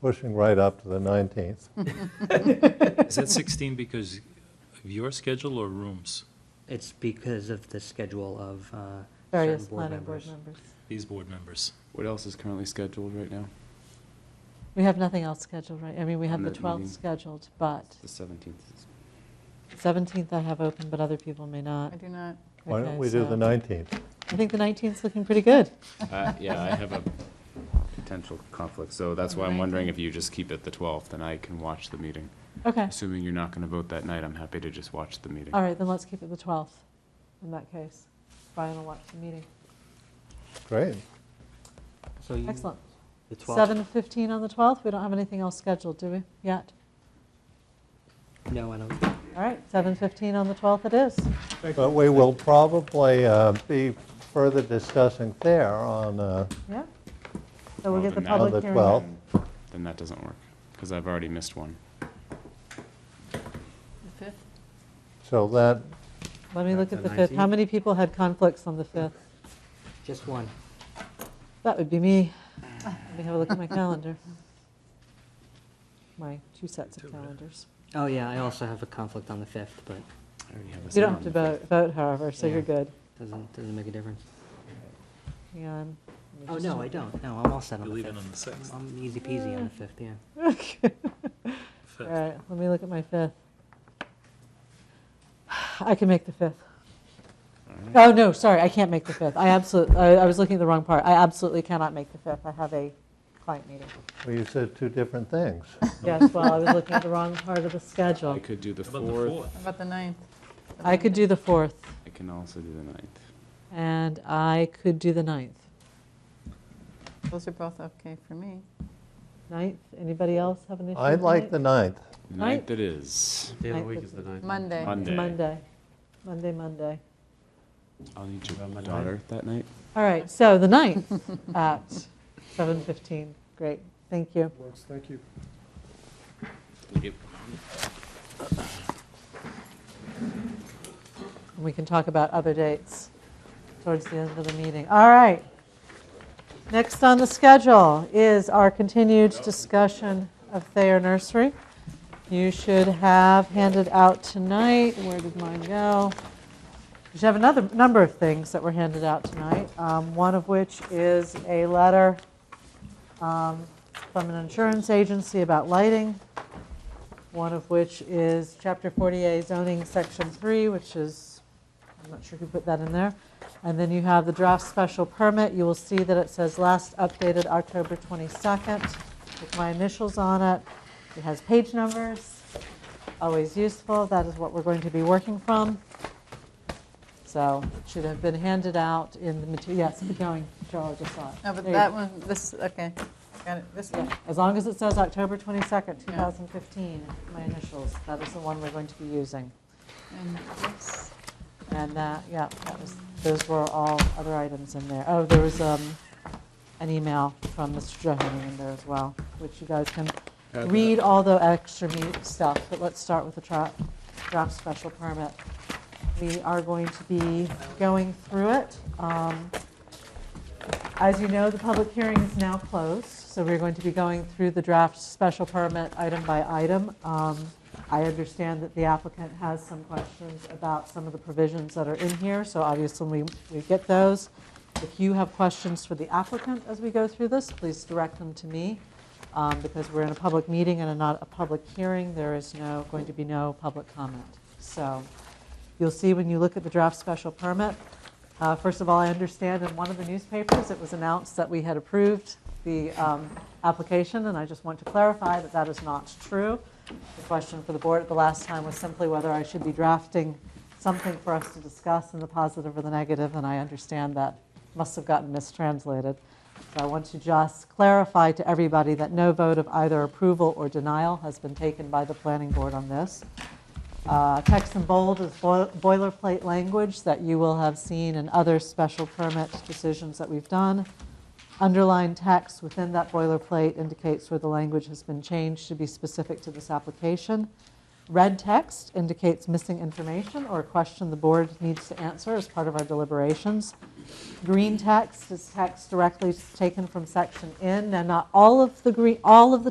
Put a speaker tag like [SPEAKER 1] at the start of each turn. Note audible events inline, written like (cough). [SPEAKER 1] pushing right up to the
[SPEAKER 2] (laughs)
[SPEAKER 1] 19th.
[SPEAKER 3] Is that 16 because of your schedule or rooms,
[SPEAKER 4] It's because of the schedule of uh, certain
[SPEAKER 2] Various
[SPEAKER 4] board
[SPEAKER 2] planning
[SPEAKER 4] members.
[SPEAKER 2] board members.
[SPEAKER 3] these board members?
[SPEAKER 5] What else is currently scheduled right now?
[SPEAKER 2] We have nothing else scheduled, right? I mean, we have
[SPEAKER 5] On
[SPEAKER 2] the
[SPEAKER 5] that
[SPEAKER 2] 12th
[SPEAKER 5] meeting.
[SPEAKER 2] scheduled, but
[SPEAKER 5] The 17th.
[SPEAKER 2] 17th I have open, but other people may not.
[SPEAKER 6] I do not.
[SPEAKER 1] Why
[SPEAKER 2] Okay,
[SPEAKER 1] don't we do
[SPEAKER 2] so
[SPEAKER 1] the 19th?
[SPEAKER 2] I think the 19th's looking pretty good.
[SPEAKER 5] (laughs) Uh, Yeah, I have a potential conflict, so that's why I'm wondering if you just keep it the 12th, and I can watch the meeting.
[SPEAKER 2] Okay,
[SPEAKER 5] Assuming you're not going to vote that night, I'm happy to just watch the meeting.
[SPEAKER 2] all right, then let's keep it the 12th in that case. Brian will watch the meeting.
[SPEAKER 1] Great.
[SPEAKER 4] So you-
[SPEAKER 2] Excellent.
[SPEAKER 4] The 12th,
[SPEAKER 2] 7:15 on the 12th, we don't have anything else scheduled, do we, yet?
[SPEAKER 4] no, I don't.
[SPEAKER 2] All right, 7:15 on the 12th it is.
[SPEAKER 1] But we will probably uh, be further discussing there on, uh,
[SPEAKER 2] Yeah. So we'll
[SPEAKER 5] Well,
[SPEAKER 2] get the
[SPEAKER 5] then that-
[SPEAKER 1] on
[SPEAKER 2] public
[SPEAKER 1] the
[SPEAKER 2] hearing.
[SPEAKER 1] 12th.
[SPEAKER 5] Then that doesn't work, because I've already missed one.
[SPEAKER 6] The 5th?
[SPEAKER 1] So that,
[SPEAKER 2] Let me look
[SPEAKER 4] The
[SPEAKER 2] at the 5th. How
[SPEAKER 4] 19th?
[SPEAKER 2] many people had conflicts on the 5th?
[SPEAKER 4] Just one.
[SPEAKER 2] That would be me. Let me have a look at my calendar. My two sets of calendars.
[SPEAKER 4] Oh, yeah, I also have a conflict on the 5th, but
[SPEAKER 5] I already have a
[SPEAKER 2] You don't
[SPEAKER 5] sign
[SPEAKER 2] have to
[SPEAKER 5] on the fifth.
[SPEAKER 2] vote, vote however, so
[SPEAKER 4] Yeah.
[SPEAKER 2] you're good.
[SPEAKER 4] doesn't, doesn't make a difference.
[SPEAKER 2] Hang on. Let me
[SPEAKER 4] Oh,
[SPEAKER 2] just
[SPEAKER 4] no, I don't. Uh, No, I'm all set
[SPEAKER 3] You're
[SPEAKER 4] on the
[SPEAKER 3] leaving
[SPEAKER 4] 5th.
[SPEAKER 3] on the 6th.
[SPEAKER 4] I'm easy peasy on the 5th, yeah.
[SPEAKER 2] (laughs) check. All
[SPEAKER 3] Fifth.
[SPEAKER 2] right, let me look at my 5th. I can make the 5th. Oh, no, sorry, I can't make the 5th. I absolutely, I I was looking at the wrong part. I absolutely cannot make the 5th. I have a client meeting.
[SPEAKER 1] well, you said two different things.
[SPEAKER 2] Yes, well, I was looking at the wrong part of the
[SPEAKER 5] I
[SPEAKER 2] schedule.
[SPEAKER 5] could do the
[SPEAKER 3] How about the
[SPEAKER 5] 4th,
[SPEAKER 3] 4th?
[SPEAKER 6] How about the ninth?
[SPEAKER 2] I could do the 4th,
[SPEAKER 5] I can also do the 9th.
[SPEAKER 2] and I could do the 9th.
[SPEAKER 6] Those are both okay for me.
[SPEAKER 2] 9th, anybody else have an issue?
[SPEAKER 1] I like the 9th.
[SPEAKER 5] The
[SPEAKER 2] Ninth?
[SPEAKER 5] 9th it is.
[SPEAKER 7] Day of the
[SPEAKER 2] Ninth
[SPEAKER 7] week
[SPEAKER 2] is
[SPEAKER 7] is the
[SPEAKER 2] the-
[SPEAKER 7] ninth.
[SPEAKER 6] Monday.
[SPEAKER 5] Monday.
[SPEAKER 2] It's Monday, Monday, Monday.
[SPEAKER 5] I'll need your
[SPEAKER 7] About my
[SPEAKER 5] daughter that night.
[SPEAKER 2] All right, so the (laughs) 9th at 7:15. Great, thank you.
[SPEAKER 7] Works, thank you.
[SPEAKER 2] And we can talk about other dates towards the end of the meeting. All right. Next on the schedule is our continued discussion of Thayer Nursery. You should have handed out tonight, where did mine go? You should have another number of things that were handed out tonight, um, one of which is a letter um, from an insurance agency about lighting one of which is Chapter 48 zoning, Section 3, which is, I'm not sure who put that in there. And then you have the draft special permit. You will see that it says last updated October 22nd with my initials on it. It has page numbers, always useful. That is what we're going to be working from. So it should have been handed out in the material, yes, keep going, Joe, I just saw it.
[SPEAKER 6] No, but
[SPEAKER 2] There you
[SPEAKER 6] that
[SPEAKER 2] go.
[SPEAKER 6] one, this, okay, got it, this one.
[SPEAKER 2] Yeah, as long as it says October 22nd,
[SPEAKER 6] Yeah.
[SPEAKER 2] 2015, my initials, that is the one we're going to be using.
[SPEAKER 6] And this.
[SPEAKER 2] And that, yeah, that was, those were all other items in there. Oh, there was um, an email from Mr. Johanning in there as well, which you guys can
[SPEAKER 7] Add that.
[SPEAKER 2] read all the extra meat stuff, but let's start with the tra- draft special permit. We are going to be going through it. Um, As you know, the public hearing is now closed, so we're going to be going through the draft special permit item by item. Um, I understand that the applicant has some questions about some of the provisions that are in here, so obviously we we get those. If you have questions for the applicant as we go through this, please direct them to me um, because we're in a public meeting and not a public hearing, there is no, going to be no public comment. So you'll see when you look at the draft special permit, uh, first of all, I understand in one of the newspapers, it was announced that we had approved the um, application, and I just want to clarify that that is not true. The question for the board at the last time was simply whether I should be drafting something for us to discuss in the positive or the negative, and I understand that must have gotten mistranslated. So I want to just clarify to everybody that no vote of either approval or denial has been taken by the planning board on this. Uh, Text in bold is boil- boilerplate language that you will have seen in other special permit decisions that we've done. Underlined text within that boilerplate indicates where the language has been changed to be specific to this application. Red text indicates missing information or a question the board needs to answer as part of our deliberations. Green text is text directly taken from section N, and not all of the green, all of the